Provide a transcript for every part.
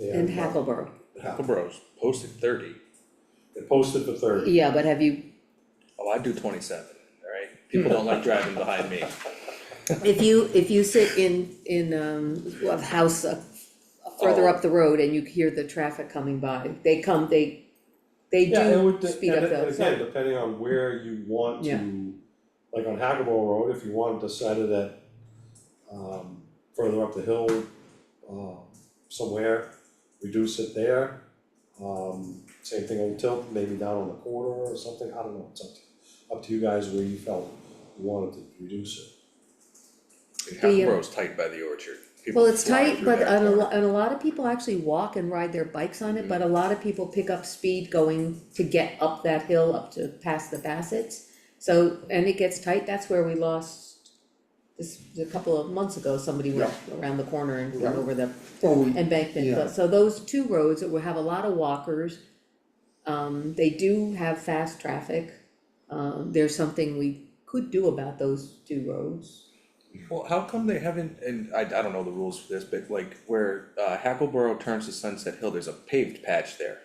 in Hackleboro. Hackleboro's posted thirty, They posted for thirty. Yeah, but have you, oh, I do twenty-seven, alright? Hmm. People don't like driving behind me, if you, if you sit in, in, um, a house up- Oh. further up the road and you hear the traffic coming by, they come, they, they Yeah, it do would, speed and up it- though, again, so, depending on where you want Yeah. to, like on Hackleboro Road, if you wanted to set it at, um, further up the hill, um, somewhere, reduce it there. Um, same thing on Tilton, maybe down on the corner or something, I don't know, it's up to, up to you guys where you felt you wanted to reduce it. And The, uh, Hackleboro's tight by the orchard. People well, it's fly tight, through but that on a corner. lot, and a lot of people actually walk and ride their bikes on it, but a lot of people pick up speed going to get up that hill, up to past the Bassett's. So, and it gets tight, that's where we lost, this, a couple of months ago, somebody went around the corner and went Yeah. over the Oh, we, embankment, Yeah. but so those two roads that will have a lot of walkers. Um, they do have fast traffic, um, there's something we could do about those two roads. Well, how come they haven't, and I, I don't know the rules for this, but like where uh, Hackleboro turns to Sunset Hill, there's a paved patch there.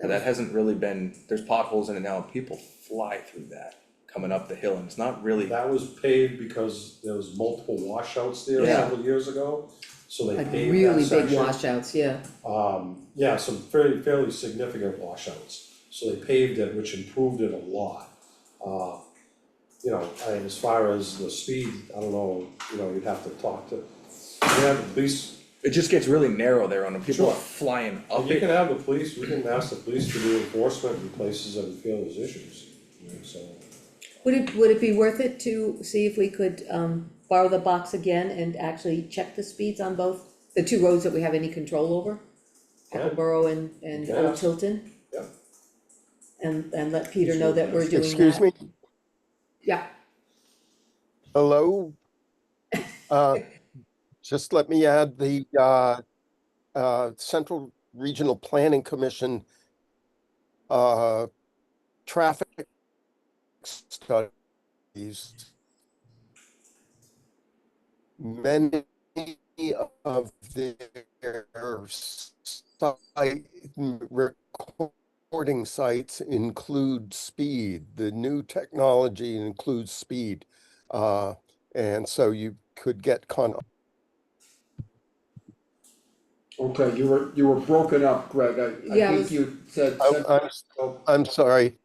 And that hasn't really been, there's potholes in it now, and people fly through that, coming up the hill, and it's not really, That was paved because there was multiple washouts there Yeah. several years ago, so they Like paved that really section. big washouts, yeah, Um, yeah, some fairly, fairly significant washouts, so they paved it, which improved it a lot. Uh, you know, I mean, as far as the speed, I don't know, you know, you'd have to talk to, you have the police, it just gets really narrow there on them, people are Sure. flying you up can it. have the police, we can ask the police to do enforcement in places that we feel there's issues, so. would it, would it be worth it to see if we could, um, borrow the box again and actually check the speeds on both? The two roads that we have any control over, Yeah. Hackleboro and, and Yeah. Old Tilton? Yeah. And, and let Peter know that we're doing that. excuse me, Yeah, hello? Uh, Just let me add the uh, uh, Central Regional Planning Commission uh, traffic studies. Many of their site recording sites include speed. The new technology includes speed. Uh, and so you could get con, Okay, you were, you were broken up, Greg. I, I Yeah, I think was- you said, I'm, said- I'm, oh, I'm sorry.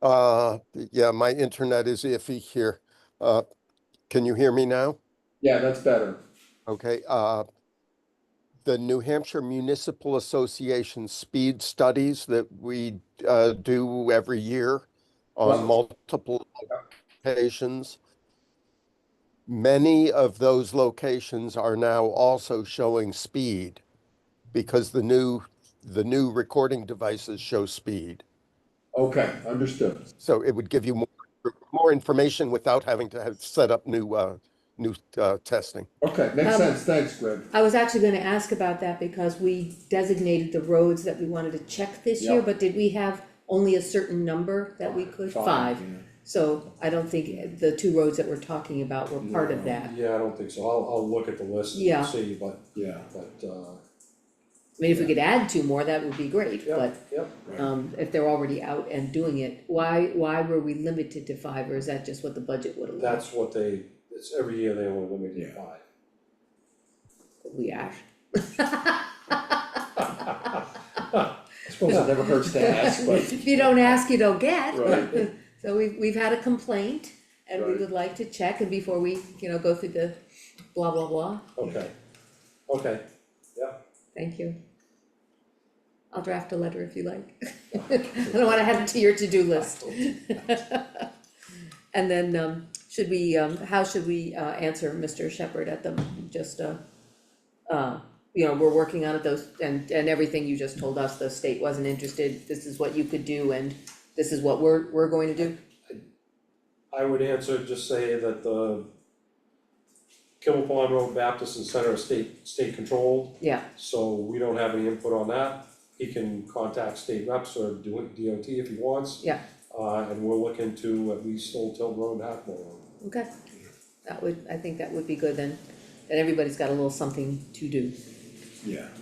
Uh, yeah, my internet is iffy here. Uh, can you hear me now? yeah, that's better. Okay, uh, the New Hampshire Municipal Association speed studies that we, uh, do every year Right. on multiple locations. Many of those locations are now also showing speed because the new, the new recording devices show speed. Okay, understood. So it would give you more, more information without having to have set up new, uh, new, uh, testing. Okay, makes Um, sense. Thanks, Greg. I was actually gonna ask about that because we designated the roads that we wanted to check this year, Yeah. but did we have only a certain number that we could? Five. So I don't think the two roads that we're talking about were part of that. Yeah, I don't think so, I'll, I'll look at the list Yeah. and see, but, Yeah. but, uh, I mean, if we could add two more, that would be great, yeah, but yeah. um if they're already out and doing it, why why were we limited to five or is that just what the budget would allow? That's what they, it's every year they will limit it by. We asked. I suppose it never hurts to ask, but, If you don't ask, you don't get. Right. So we've, we've had a complaint and we Right. would like to check and before we, you know, go through the blah, blah, blah, Okay, okay, yeah, thank you. I'll draft a letter if you like. I don't wanna add it to your to-do list. And then, um, should we, um, how should we, uh, answer Mr. Shepherd at the, just, uh, uh, you know, we're working on it, those, and, and everything you just told us, the state wasn't interested, this is what you could do and this is what we're, we're going to do? I would answer, just say that the Kimball Pond Road Baptist and Center are state, state controlled, Yeah, so we don't have any input on that. He can contact state reps or do it DOT if he wants, yeah. uh, and we'll look into at least Old Tilton Road and Hackmore Road. Okay, that would, I think that would be good then, then everybody's got a little something to do. yeah.